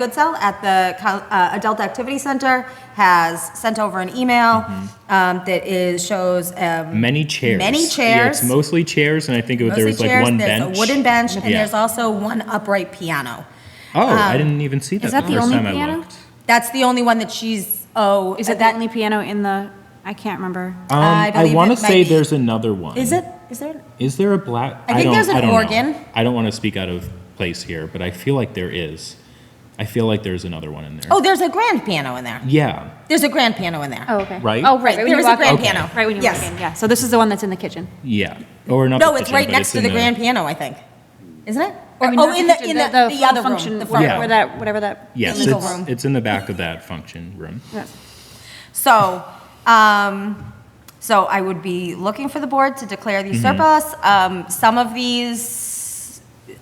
Goodsell at the Col- uh, Adult Activity Center has sent over an email um, that is, shows um, Mm-hmm. Many chairs. Many Yeah, it's chairs. mostly chairs, and I think it was, there mostly was like chairs, one there's bench. a um, wooden bench, and Yeah. there's also one upright piano. Oh, I didn't even see that. is that the first only time I piano? looked. That's the only one that she's, oh. Is it the only piano in the, I can't remember. Um, Uh, I I believe want to it might say be- there's another one. Is it, is there? Is there a black? I think don't- there's an I don't know. organ. I don't want to speak out of place here, but I feel like there is. I feel like there's another one in there. Oh, there's a grand piano in there. Yeah. There's a grand piano in there. Oh, okay. Right? Oh, right. Right, when there you is a walk grand in. piano. Right when you Yes. walk in, yeah. So this is the one that's in the kitchen. Yeah. Or not. No, the it's kitchen, right but next to in the grand piano, I think. Isn't it? I Or, mean, oh, not in the, kitchen, in the, the other room, function, the where- front Yeah. room. Where that, whatever that. Yes, legal it's, room. it's in the back of that function room. Yeah. So, um, so I would be looking for the board to declare these surplus. Um, some of these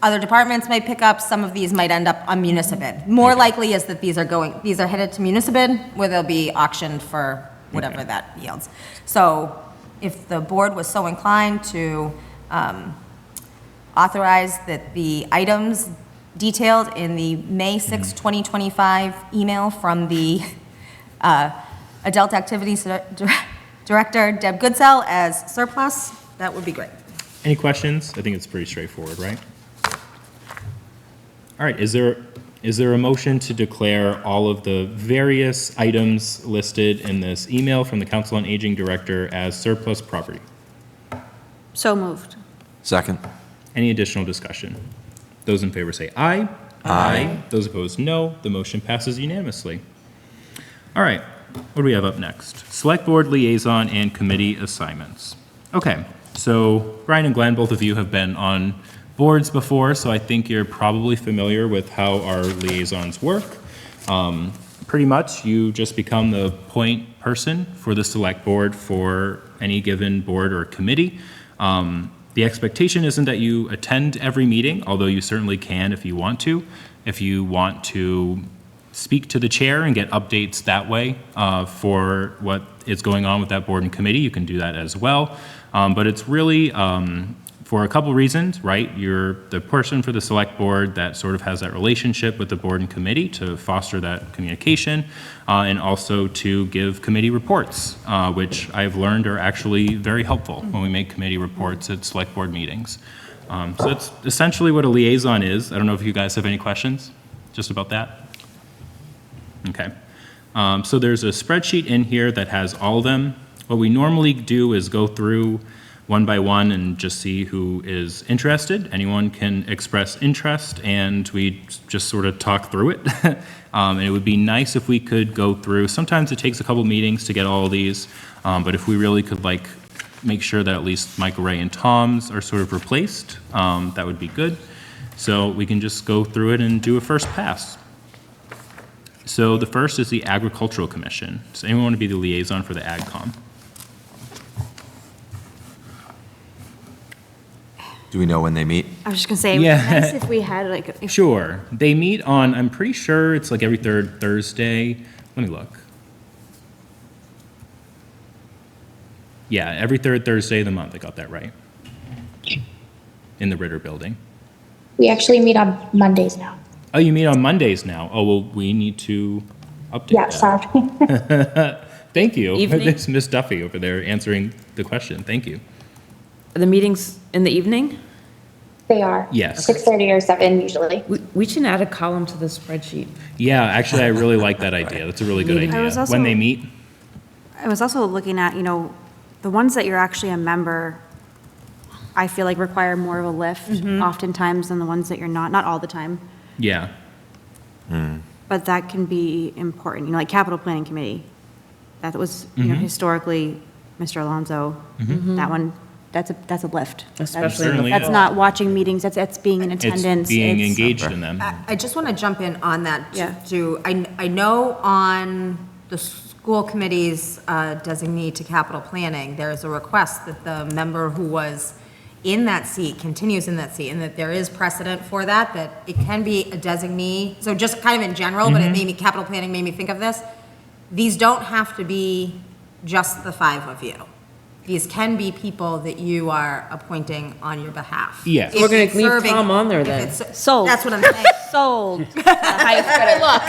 other departments may pick up, some of these might end up on municipal. More likely is that these are going, these are headed to municipal, where they'll be auctioned for whatever Okay. that yields. So if the board was so inclined to, um, authorize that the items detailed in the May 6, 2025 email from the uh, Adult Activities Dir- Director, Deb Goodsell, as surplus, that would be great. Any questions? I think it's pretty straightforward, right? All right, is there, is there a motion to declare all of the various items listed in this email from the Council on Aging Director as surplus property? So moved. Second. Any additional discussion? Those in favor say aye. Aye. Those opposed, no. The motion passes unanimously. All right, what do we have up next? Select Board Liaison and Committee Assignments. Okay, so Brian and Glenn, both of you have been on boards before, so I think you're probably familiar with how our liaisons work. Um, Pretty much, you just become the point person for the Select Board for any given board or committee. Um, The expectation isn't that you attend every meeting, although you certainly can if you want to. If you want to speak to the chair and get updates that way uh, for what is going on with that board and committee. You can do that as well. Um, But it's really um, for a couple reasons, right? You're the person for the select board that sort of has that relationship with the board and committee to foster that communication uh, and also to give committee reports, uh, which I've learned are actually very helpful when we make committee reports at select board meetings. Um, So that's essentially what a liaison is. I don't know if you guys have any questions just about that? Okay. Um, So there's a spreadsheet in here that has all of them. What we normally do is go through one by one and just see who is interested. Anyone can express interest, and we just sort of talk through it. Um, And it would be nice if we could go through, sometimes it takes a couple meetings to get all of these, um, but if we really could like make sure that at least Michael Ray and Tom's are sort of replaced, um, that would be good. So we can just go through it and do a first pass. So the first is the Agricultural Commission. Does anyone want to be the liaison for the AgCom? Do we know when they meet? I was just gonna say, it would be Yeah. nice if we had like, if- Sure. They meet on, I'm pretty sure it's like every third Thursday. Let me look. Yeah, every third Thursday of the month. I got that right. In the Ritter Building. We actually meet on Mondays now. Oh, you meet on Mondays now. Oh, well, we need to update Yeah, that. sorry. Thank you. Evening. There's Miss Duffy over there answering the question. Thank you. Are the meetings in the evening? They are. Yes. Six thirty or seven usually. We we can add a column to the spreadsheet. Yeah, actually, I really like that idea. That's a really good I idea. was also- when they meet, I was also looking at, you know, the ones that you're actually a member, I feel like require more of a lift Mm-hmm. oftentimes than the ones that you're not, not all the time. yeah. But that can be important, you know, like capital planning committee. That was, you Mm-hmm. know, historically, Mr. Alonso, that one, that's a, that's a lift. Especially in the Certainly fall. That's not watching meetings, that's, that's being in It's attendance. being it's- engaged in them. I I just want to jump in on that to- Yeah. to, I, I know on the school committee's uh, designee to capital planning, there is a request that the member who was in that seat continues in that seat, and that there is precedent for that, that it can be a designee, so just kind of in general, but it made me, capital planning made me think of this. These don't have to be just the five of you. these can be people that you are appointing on your behalf. Yes. If We're gonna it's leave serving- Tom on there if then. it's- Sold. That's what I'm saying. Sold. Look.